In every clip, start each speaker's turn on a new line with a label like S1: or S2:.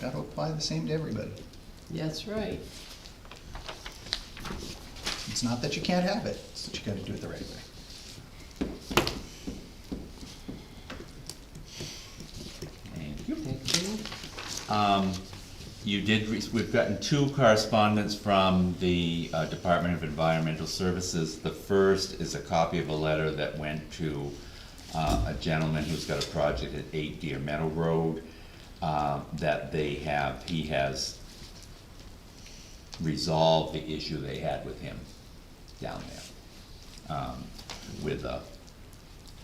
S1: That'll apply the same to everybody.
S2: That's right.
S1: It's not that you can't have it, it's that you gotta do it the right way.
S3: Thank you. Um, you did, re- we've gotten two correspondents from the uh, Department of Environmental Services. The first is a copy of a letter that went to, uh, a gentleman who's got a project at Eight Deer Meadow Road, uh, that they have, he has resolved the issue they had with him down there, um, with, uh,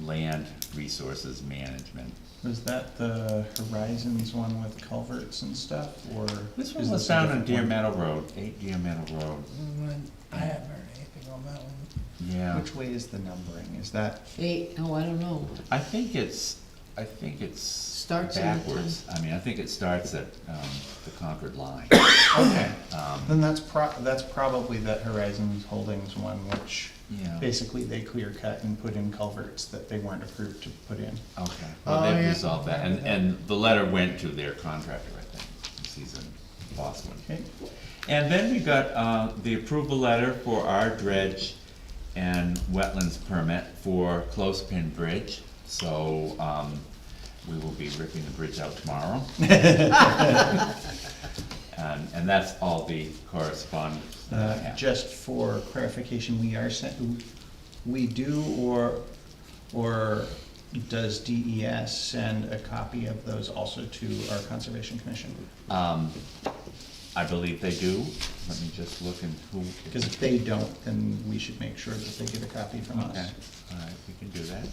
S3: land resources management.
S4: Was that the Horizons one with culverts and stuff, or?
S3: This one
S4: is
S3: was
S4: a
S3: found on
S4: different
S3: Deer
S4: one?
S3: Meadow Road, eight Deer Meadow Road,
S5: I haven't heard anything on that one.
S3: yeah.
S1: Which way is the numbering? Is that,
S2: Eight, oh, I don't know.
S3: I think it's, I think it's
S2: Starts in the
S3: backwards, I mean, I think it starts at, um, the Concord line.
S4: Okay,
S3: Um,
S4: then that's pro, that's probably that Horizons Holdings one, which
S3: Yeah,
S4: basically they clear cut and put in culverts that they weren't approved to put in.
S2: Oh,
S3: okay, well, they've
S5: yeah.
S3: resolved that, and, and the letter went to their contractor, I think, since he's in Boston.
S4: Okay,
S3: And then we got, uh, the approval letter for our dredge and wetlands permit for Close Pin Bridge. So, um, we will be ripping the bridge out tomorrow. And, and that's all the correspondence that I
S4: uh,
S3: have.
S4: just for clarification, we are sent, we do or, or does DES send a copy of those also to our Conservation Commission?
S3: Um, I believe they do. Let me just look and who.
S4: Because if they don't, then we should make sure that they get a copy from
S3: Okay,
S4: us.
S3: all right, we can do that.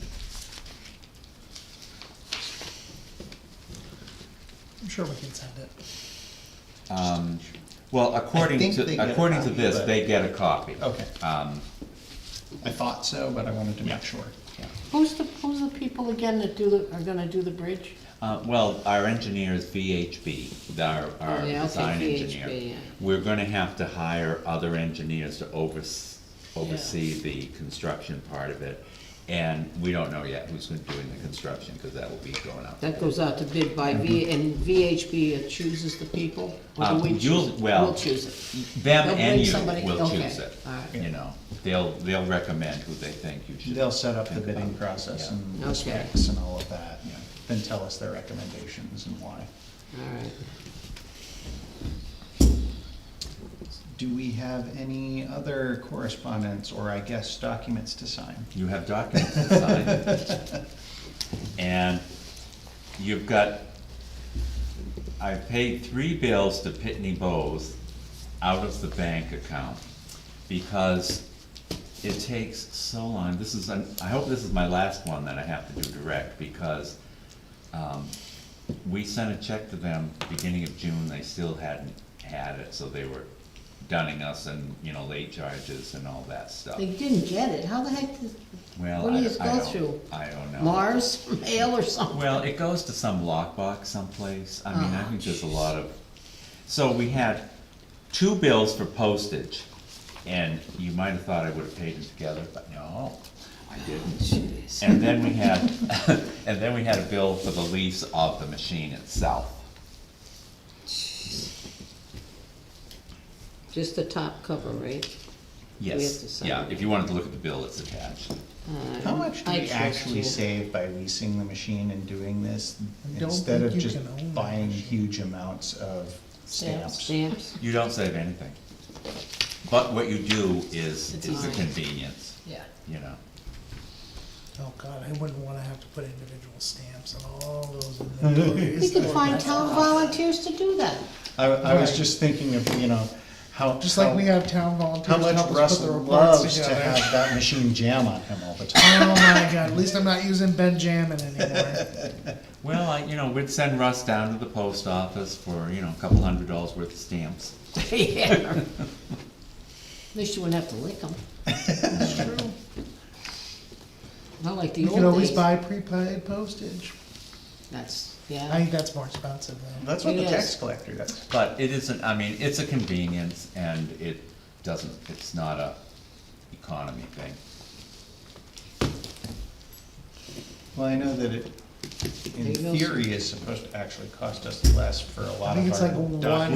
S5: I'm sure we can send it.
S3: Um, well, according
S4: think they
S3: to,
S4: get a
S3: according to
S4: copy,
S3: this,
S4: but- Oh.
S3: they get a copy.
S4: Okay,
S3: Um,
S4: I thought so, but I wanted to make sure.
S3: yeah.
S2: Who's the, who's the people again that do the, are gonna do the bridge?
S3: Uh, well, our engineer is VHB, our, our
S2: Oh, yeah, okay,
S3: design engineer.
S2: VHB, yeah.
S3: We're gonna have to hire other engineers to overs- oversee the construction part of it. And we don't know yet who's gonna doing the construction, cause that will be going out.
S2: That goes out to bid by V, and VHB chooses the people? Or do
S3: Um,
S2: we choose?
S3: you'll- well,
S2: We'll choose it.
S3: Them
S2: They'll
S3: and
S2: bring
S3: you
S2: somebody-
S3: will
S2: okay,
S3: choose it,
S2: all right.
S3: you know, they'll, they'll recommend who they think you should.
S4: They'll set up the
S3: think
S4: bidding
S3: about.
S4: process
S3: Yeah.
S4: and
S2: Okay.
S4: the specs and all of that, then tell us their recommendations and why.
S2: All right.
S4: Do we have any other correspondence or I guess documents to sign?
S3: You have documents to sign. And you've got, I paid three bills to Pitney Bowes out of the bank account because it takes so long. This is, an- I hope this is my last one that I have to do direct because um, we sent a check to them beginning of June, they still hadn't had it, so they were dunning us and, you know, late charges and all that stuff.
S2: They didn't get it. How the heck did,
S3: Well,
S2: what do
S3: I,
S2: you just
S3: I
S2: go
S3: don't-
S2: through?
S3: I don't know.
S2: Mars mail or something?
S3: Well, it goes to some lockbox someplace. I mean, I
S2: Oh,
S3: think there's a lot of, so we had two bills for postage, and you might have thought I would have paid them together, but no, I didn't.
S2: Jeez.
S3: And then we had, and then we had a bill for the lease of the machine itself.
S2: Just the top cover, right? have to
S3: Yes,
S2: sign
S3: yeah,
S2: it.
S3: if you wanted to look at the bill, it's attached.
S2: Uh,
S4: How much do
S2: I
S4: we
S2: trust
S4: actually
S2: you.
S4: save by leasing the machine and doing this
S5: I don't
S4: instead
S5: think
S4: of
S5: you
S4: just
S5: can own that
S4: buying
S5: machine.
S4: huge amounts of stamps?
S2: Stamps?
S3: You don't save anything. But what you do is,
S2: It's
S3: is a
S2: easy.
S3: convenience,
S2: Yeah.
S3: you know?
S5: Oh, God, I wouldn't wanna have to put individual stamps on all those inventories.
S2: We could find town volunteers to do that.
S4: I, I was
S5: Right.
S4: just thinking of, you know, how.
S5: Just like
S4: how-
S5: we have town volunteers
S4: How
S5: to
S4: much
S5: help us put the
S4: Russell
S5: reports
S4: loves to
S5: together.
S4: have that machine jam on him all the time.
S5: Oh, my God, at least I'm not using Benjamin anymore.
S3: Well, I, you know, we'd send Russ down to the post office for, you know, a couple hundred dollars worth of stamps.
S2: Yeah. At least you wouldn't have to lick them.
S5: It's true.
S2: Not like the
S5: You can
S2: old
S5: always
S2: days.
S5: buy prepaid postage.
S2: That's,
S5: I
S2: yeah.
S5: think that's more expensive though.
S4: That's what the
S2: Yes.
S4: tax collector does.
S3: But it isn't, I mean, it's a convenience and it doesn't, it's not a economy thing.
S4: Well, I know that it in
S2: Maybe those-
S4: theory, is supposed to actually cost us less for a lot
S1: think
S4: of
S1: it's
S4: our
S1: like one-
S4: documents.